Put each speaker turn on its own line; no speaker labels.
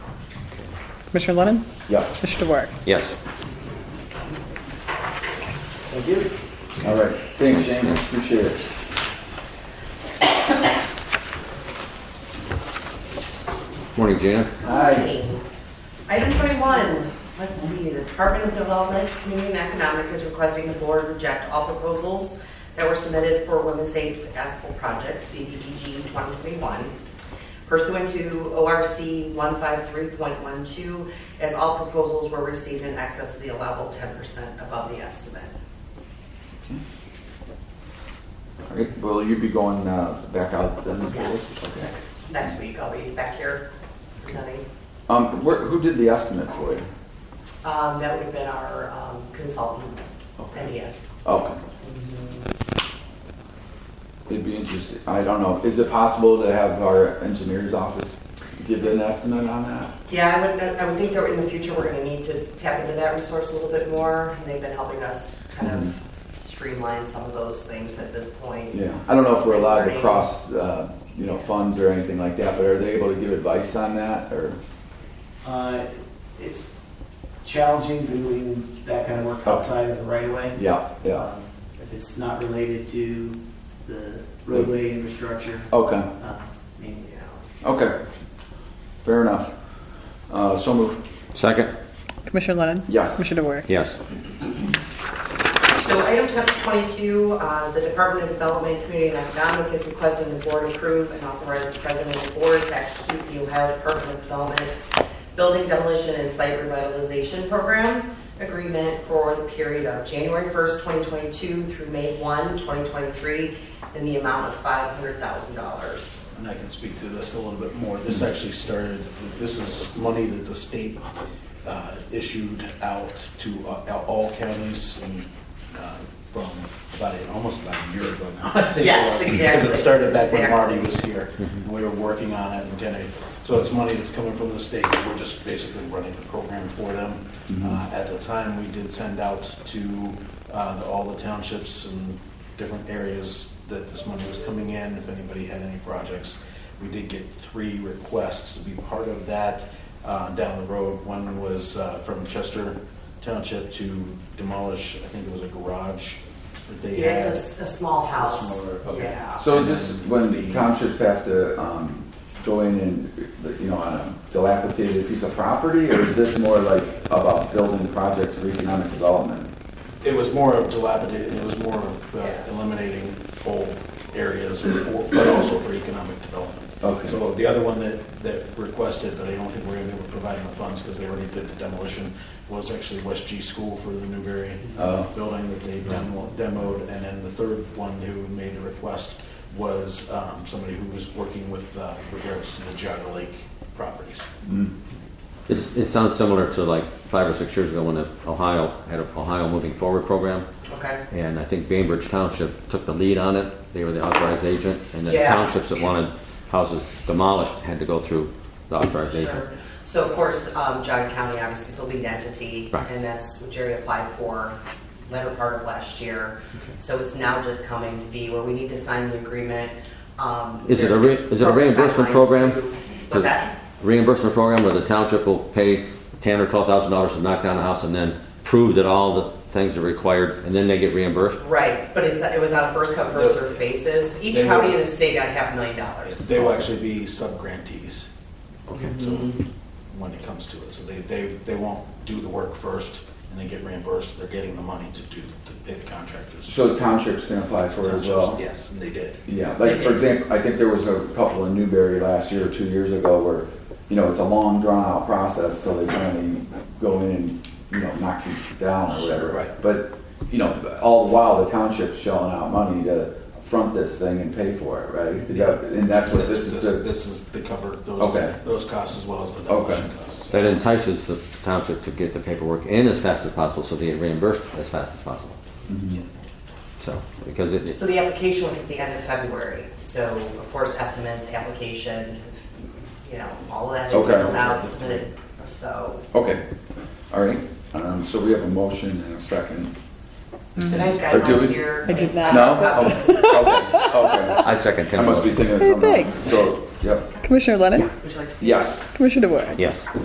Commissioner Lennon?
Yes.
Commissioner DeWark?
Yes.
Thank you. All right, thanks, Shane, appreciate it.
Morning, Gina.
Hi.
Item 21, let's see, the Department of Development, Community and Economic is requesting the board reject all proposals that were submitted for Women's Aid Asphalt Project, CDBG 2021, pursuant to ORC 153.12, as all proposals were received in excess of the allowable 10% above the estimate.
All right, will you be going uh, back out then?
Yes.
Okay.
Next- Next week, I'll be back here presenting.
Um, where, who did the estimate for you?
Um, That would have been our um, consultant,
Okay.
NDS.
Okay. It'd Oh. be interesting, I don't know, is it possible to have our engineer's office give an estimate on that?
Yeah, I would, I would think that in the future, we're gonna need to tap into that resource a little bit more. and They've been helping us kind
Mhm.
of streamline some of those things at this point.
Yeah, I don't know if we're allowed to cross, uh, you know, funds or anything like that, but are they able to give advice on that, or?
Uh, It's challenging doing that kind of work outside of the right of way.
Oh. Yeah, yeah,
Um, If it's not related to the roadway infrastructure,
okay.
uh, mainly.
You know.
Okay, fair enough. Uh, So moved.
Second?
Commissioner Lennon?
Yes.
Commissioner DeWark?
Yes.
So item t- 22, uh, the Department of Development, Community and Economic is requesting the board approve and authorize the president of the board to execute the Ohio Department of Development Building Demolition and Site Revitalization Program Agreement for the period of January 1st, 2022 through May 1, 2023, in the amount of $500,000.
and I can speak to this a little bit more. This actually started, this is money that the state uh, issued out to uh, all counties and uh, from about, a- almost about a year ago now. I think it
Yes,
was,
exactly.
Because it started back when
Exactly.
Marty was here. and We were working on it and getting, so it's money that's coming from the state. We're just basically running the program for them. Uh, At the time, we did send out to uh, the- all the townships and different areas that this money was coming in, if anybody had any projects. We did get three requests to be part of that uh, down the road. One was uh, from Chester Township to demolish, I think it was a garage that they
Yeah,
had.
it's a, a small house.
Smaller, okay.
Yeah.
So is this when the townships have to um, go in and, you know, on a dilapidated piece of property? Or is this more like about building projects for economic development?
It was more of dilapidated, it was more of uh,
Yeah.
eliminating old areas, or- but also for economic development.
Okay.
So the other one that, that requested, but I don't think we're gonna be able to provide them the funds, because they already did the demolition, was actually West G School for the Newberry uh, building that they demo- demoed, and then the third one who made the request was um, somebody who was working with uh, regards to the Jaga Lake properties.
It's, it sounds similar to like five or six years ago when the Ohio had an Ohio Moving Forward program.
Okay.
And I think Bainbridge Township took the lead on it. They were the authorized agent. And the
Yeah.
townships that wanted houses demolished had to go through the authorized agent.
Sure. So of course, um, John County obviously is the lead entity,
Right.
and that's what Jerry applied for latter part of last year. So it's now just coming to be where we need to sign the agreement. Um,
Is it a,
there's
re- is it a reimbursement
guidelines
program?
to-
Does-
What's that?
Reimbursement program where the township will pay ten or twelve thousand dollars to knock down a house and then prove that all the things are required and then they get reimbursed?
Right, but it's, it was on a first come, first served basis. Each
They
county
were-
in the state got half a million dollars.
They will actually be sub-grantees. Okay. So, when it comes to it, so they, they, they won't do the work first and then get reimbursed, they're getting the money to do, to pay the contractors.
So townships can apply for it as well?
Yes, and they did.
Yeah, like for example, I think there was a couple in Newberry last year or two years ago where, you know, it's a long drawn out process till they finally go in and, you know, knock you down or whatever.
Sure, right.
But, you know, all the while the township's shelling out money to front this thing and pay for it, right? Is that, and that's what this is, the-
This is, they cover
Okay.
those, those costs as well as the demolition costs.
That entices the township to get the paperwork in as fast as possible so they get reimbursed as fast as possible. So, because it,
So the application was at the end of February. So of course, estimates, application, you know, all of that. should be
Okay.
filled out, submitted. So
okay, all right. Um, so we have a motion and a second.
Did I have
Or do
guidelines
we-
here?
Mm-hmm. I did not.
No?
Copies.
Oh, Okay, okay.
I second
I
Tim's
must be
motion.
thinking of something else.
Thanks.
So, yep,
Commissioner Lennon?
Would you like to see?
yes.
Commissioner DeWark?
Yes.